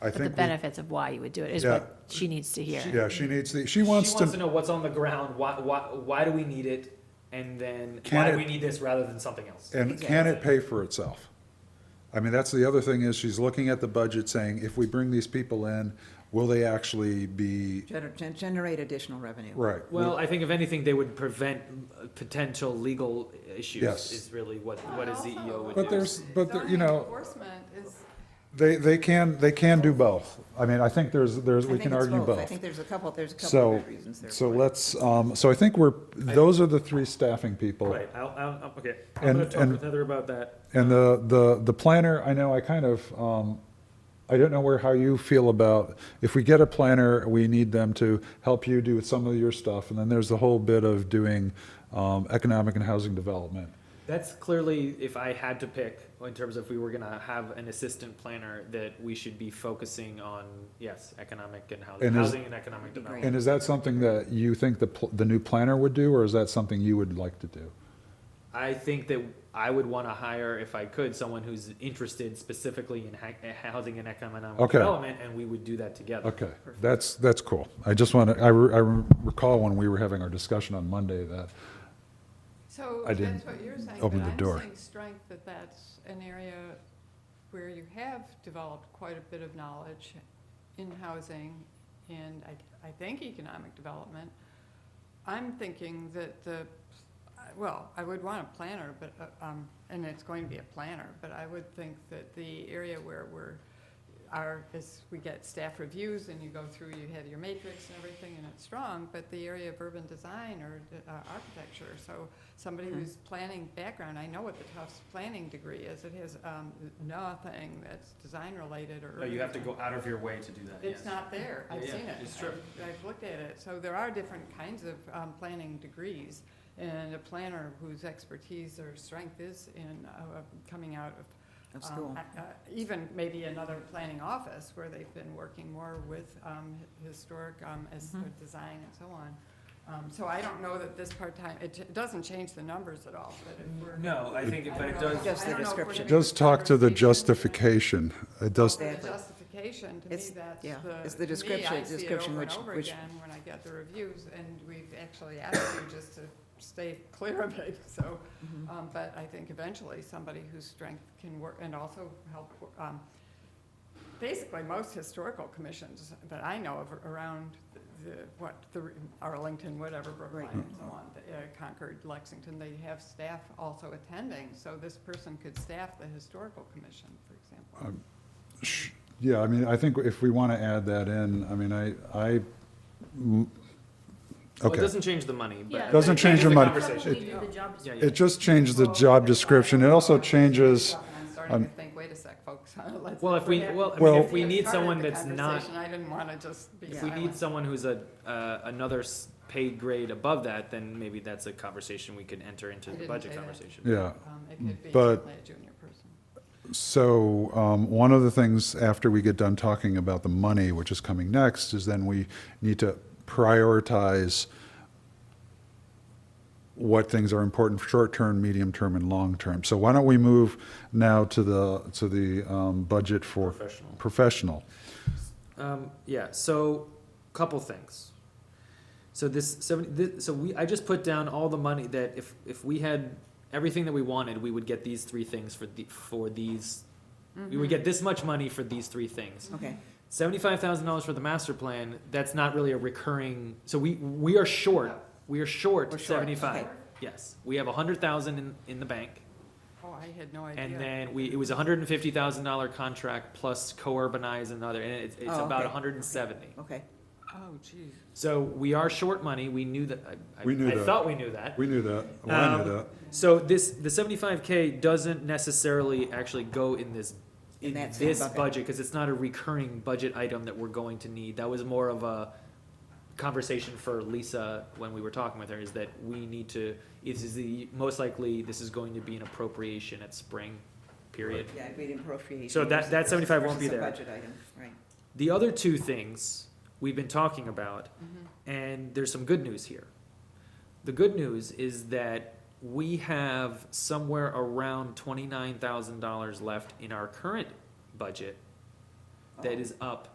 I But the think, we- benefits of why you would do it is Yeah. what she needs to hear. yeah, she needs the, she She wants wants to to, know what's on the ground, why, why, why do we need it, and then Can why it- do we need this rather than something else? and can it pay for itself? I mean, that's the other thing is she's looking at the budget saying, if we bring these people in, will they actually be, Gener- gen- Generate additional revenue. right? Well, I think if anything, they would prevent uh, potential legal issues. Yes. Is really what what a CEO would But do. there's, but, there- you know. Enforcement is, They, they can, they can do both. I mean, I think there's, there's, I we think can it's argue I both. think there's a couple, there's a couple So, of reasons there. so for it. let's, um, so I think we're, those are the three staffing people. right. I'll, I'll, I'll- okay. I'm And- gonna talk and- with Heather about that. And the, the, the planner, I know I kind of, um, I don't know where, how you feel about, if we get a planner, we need them to help you do some of your stuff. And then there's the whole bit of doing, um, economic and housing development. That's clearly, if I had to pick in terms of if we were gonna have an assistant planner, that we should be focusing on yes, economic and housing, And is- housing and economic Be great. development. And is that something that you think the, pl- the new planner would do, or is that something you would like to do? I think that I would want to hire, if I could, someone who's interested specifically in ha- eh, housing and economic Okay. development, and we would do that together. Okay, that's, that's cool. I just want to, I, re- I re- recall when we were having our discussion on Monday that, so I that's didn't what you're saying, but open the door. I'm seeing strength that that's an area where you have developed quite a bit of knowledge in housing and I, I think economic development. I'm thinking that the, well, I would want a planner, but, uh, um, and it's going to be a planner, but I would think that the area where we're, our, is we get staff reviews and you go through, you have your matrix and everything and it's strong, but the area of urban design or uh, architecture, so somebody who's planning background, I know what the Tufts planning degree is, it has, um, nothing that's design related or. No, you have to go out of your way to do that. It's yes. not there, I've Yeah, seen it. it's true. I've- I've looked at it, so there are different kinds of um, planning degrees, and a planner whose expertise or strength is in uh, uh, coming out of. Of um, school. uh, uh, Even maybe another planning office where they've been working more with um, hi- historic um, as Mhm. uh, design and so on. Um, So I don't know that this part-time, it ch- doesn't change the numbers at all, but if we're. No, I think, it- I but it don't know. does. Just I the don't know if we're description. it gonna does talk to the conversation. justification. It does, For the Exactly. justification, to me, It's- that's yeah, the. it's the to me, description- I see it description which- over and over which- again when I get the reviews, and we've actually asked you just to stay clear of it, so. Mm-hmm. um, But I think eventually, somebody whose strength can work, and also help, um, basically, most historical commissions that I know of around the, what, the Arlington, whatever, Brookline Right. and so on, uh, Concord, Lexington, they have staff also attending, so this person could staff the historical commission, for example. Sh- Yeah, I mean, I think if we want to add that in, I mean, I, I, Well, it okay. doesn't change the money, but. Yeah. it Doesn't change changes the money. Conversation. Probably do the job Yeah, yeah. It just changed the job description. It also changes, um, I'm starting to think, wait a sec, folks. Let's- Well, if we, Yeah. well, I Well- mean, if we need Started someone the that's not, conversation, I didn't want to just be if we need silent. someone who's a, uh, another s- paid grade above that, then maybe that's a conversation we could enter into I the didn't budget say that. conversation. yeah. Um, It could be But- certainly a junior person. So, um, one of the things after we get done talking about the money, which is coming next, is then we need to prioritize what things are important for short-term, medium-term, and long-term. So why don't we move now to the, to the, um, budget for Professional. professional? Um, yeah, so couple things. So this, so, this, so we, I just put down all the money that if, if we had everything that we wanted, we would get these three things for the, for these, we Mm-hmm. would get this much money for these three things. Okay, Seventy-five thousand dollars for the master plan, that's not really a recurring, so we, we are short, we are We're short short, seventy-five. okay. Yes, we have a hundred thousand in, in the bank. Oh, I had no idea. And then we, it was a hundred and fifty thousand dollar contract plus co-urbanize another, and it's, it's Oh, about okay. a hundred and seventy. okay. Oh, geez. So we are short money, we knew that, I, We knew I- I that. thought we knew that. We knew that. Well, I knew Um, that. So this, the seventy-five K doesn't necessarily actually go in this, In in that same this bucket. budget, cause it's not a recurring budget item that we're going to need. That was more of a conversation for Lisa when we were talking with her, is that we need to, this is the, most likely, this is going to be an appropriation at spring, period. Yeah, I made appropriation. So that- that versus- 75 won't be versus a there. budget item, right. The other two things we've been talking about, Mm-hmm. and there's some good news here. The good news is that we have somewhere around twenty-nine thousand dollars left in our current budget that is up